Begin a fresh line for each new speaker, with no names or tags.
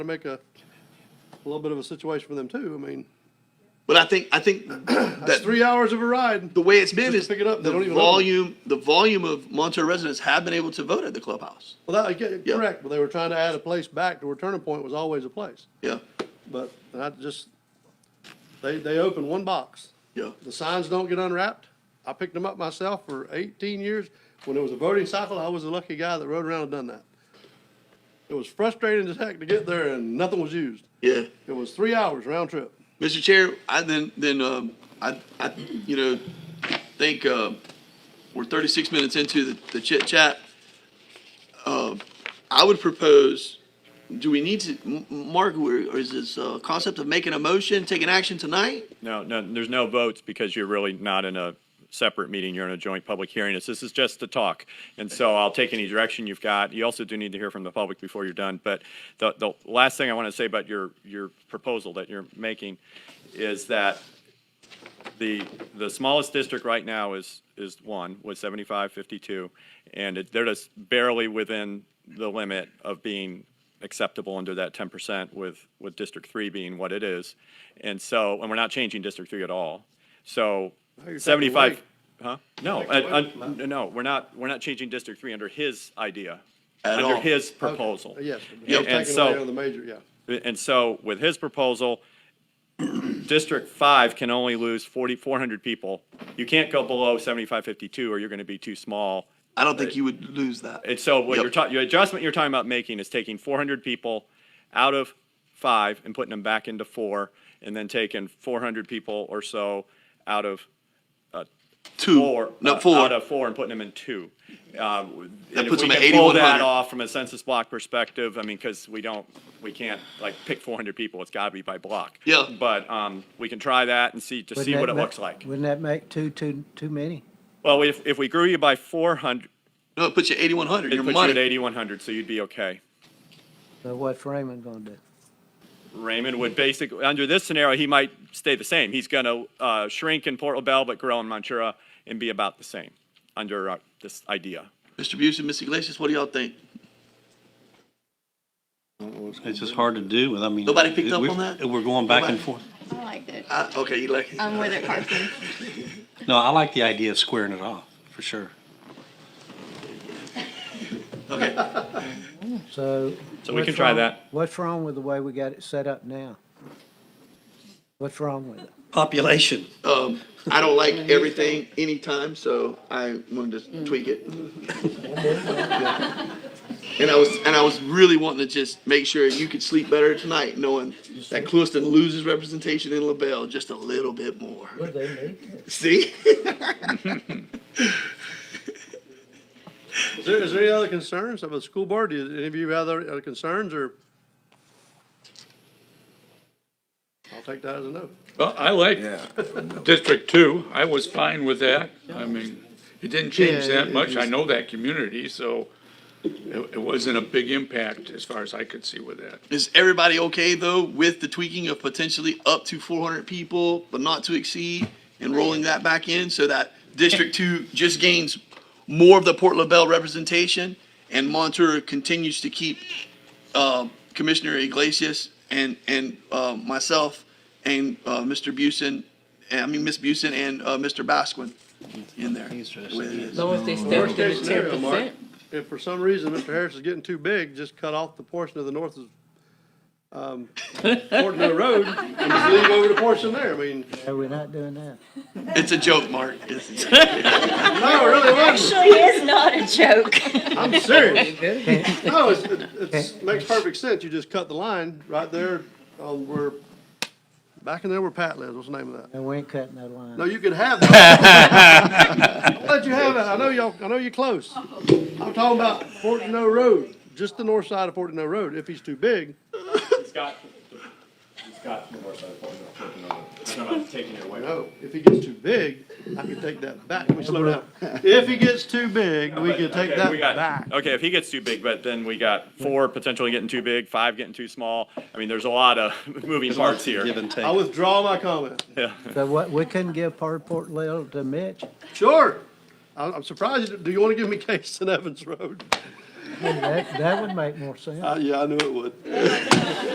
to make a, a little bit of a situation for them too. I mean,
But I think, I think
that's
that
three hours of a ride.
the way it's been
Just
is
pick it up, they
the
don't even open it.
volume, the volume of Montour residents have been able to vote at the clubhouse.
Well, that, yeah,
Yeah.
correct, but they were trying to add a place back to where Turning Point was always a place.
Yeah,
But I just, they, they opened one box.
yeah.
The signs don't get unwrapped. I picked them up myself for eighteen years. When it was a voting cycle, I was the lucky guy that rode around and done that. It was frustrating as heck to get there and nothing was used.
Yeah.
It was three hours round trip.
Mr. Chair, I then, then, um, I, I, you know, think, uh, we're thirty-six minutes into the, the chit chat. Uh, I would propose, do we need to, M- M- Mark, or or is this, uh, concept of making a motion, taking action tonight?
No, no, there's no votes because you're really not in a separate meeting. You're in a joint public hearing. It's- This is just to talk. And so I'll take any direction you've got. You also do need to hear from the public before you're done. But the, the last thing I want to say about your, your proposal that you're making is that the, the smallest district right now is, is one, with 75, 52, and it- they're just barely within the limit of being acceptable under that 10% with, with District 3 being what it is. And so, and we're not changing District 3 at all. So
you're taking
75,
away-
huh? No,
Taking
uh,
away
uh,
from that.
no, we're not, we're not changing District 3 under his idea.
At
Under
all.
his proposal.
Yes. but
Yep.
they're
And
Taking away
so-
on the major, yeah.
And so with his proposal, District Five can only lose forty, four hundred people. You can't go below seventy-five fifty-two or you're gonna be too small.
I don't think you would lose that.
And so what
Yep.
you're talking, your adjustment you're talking about making is taking four hundred people out of five and putting them back into four and then taking four hundred people or so out of
Two,
four, uh,
not four.
out of four and putting them in two. Um,
That
and if
puts
we
them at
can Pull that
8,100.
off from a census block perspective, I mean, because we don't, we can't like pick four hundred people, it's gotta be by block.
Yeah.
But, um, we can try that and see, to see
Wouldn't
what
that
it
ma-
looks like.
Wouldn't that make too, too, too many?
Well, if, if we grew you by four hundred,
No, it puts you eighty-one hundred,
it
your
puts you at
money.
eighty-one hundred, so you'd be okay.
So what Freeman gonna do?
Raymond would basically, under this scenario, he might stay the same. He's gonna, uh, shrink in Port LaBelle, but grow in Ventura and be about the same, under, uh, this idea.
Mr. Busey, Mr. Iglesias, what do y'all think?
It's just hard to do with, I mean.
Nobody picked
it-
up
we-
on that?
We're going back and
Nobody?
forth.
I liked it.
I, okay, you like,
I'm with it, Carson.
No, I like the idea of squaring it off, for sure.
okay.
So.
So we
what's
can try
wrong-
that.
What's wrong with the way we got it set up now? What's wrong with it?
Population.
Um, I don't like everything anytime, so I wanted to tweak it. And I was, and I was really wanting to just make sure you could sleep better tonight, knowing that Clueston loses representation in LaBelle just a little bit more. See?
Is there, is there any other concerns about the school board? Do you- any of you have other other concerns or? I'll take that as a no.
Well, I like District Two. I was fine with that. I mean, it didn't change
Yeah,
that much. I know that community, so it, it wasn't a big impact as far as I could see with that.
Is everybody okay though with the tweaking of potentially up to four hundred people, but not to exceed, and rolling that back in so that District Two just gains more of the Port LaBelle representation, and Montour continues to keep uh, Commissioner Iglesias and and uh, myself and uh, Mr. Busen, I mean Miss Busen and uh, Mr. Basquin in there. the way it is.
long as they step
Worst
to the
case
ten
scenario, Mark,
percent.
if for some reason Mr. Harris is getting too big, just cut off the portion of the north of, um, portion of the road and just leave over the portion there. I mean,
Are we not doing that?
It's a joke, Mark. It's a joke.
no, it really wasn't.
Actually, it's not a joke.
I'm serious. No, it's, it's, it makes perfect sense. You just cut the line right there on where, back in there where Pat lives. What's the name of that?
And we ain't cutting that
No,
line.
you can have that. I'll let you have it. I know y'all, I know you're close. I'm talking about Fortino Road, just the north side of Fortino Road. If he's too big,
He's got, he's got the more side of It's not about taking it away.
no. If he gets too big, I can take that back. Let me slow down. If he gets too big, we can take that back.
Okay, if he gets too big, but then we got four potentially getting too big, five getting too small. I mean, there's a lot of moving parts
Give
here.
and
I
take.
withdraw my comment.
So what, we couldn't give part of Port Little to Mitch?
Sure. I'm, I'm surprised. you- Do you want to give me Case and Evans Road?
That, that would make more sense.
Uh, yeah, I knew it would.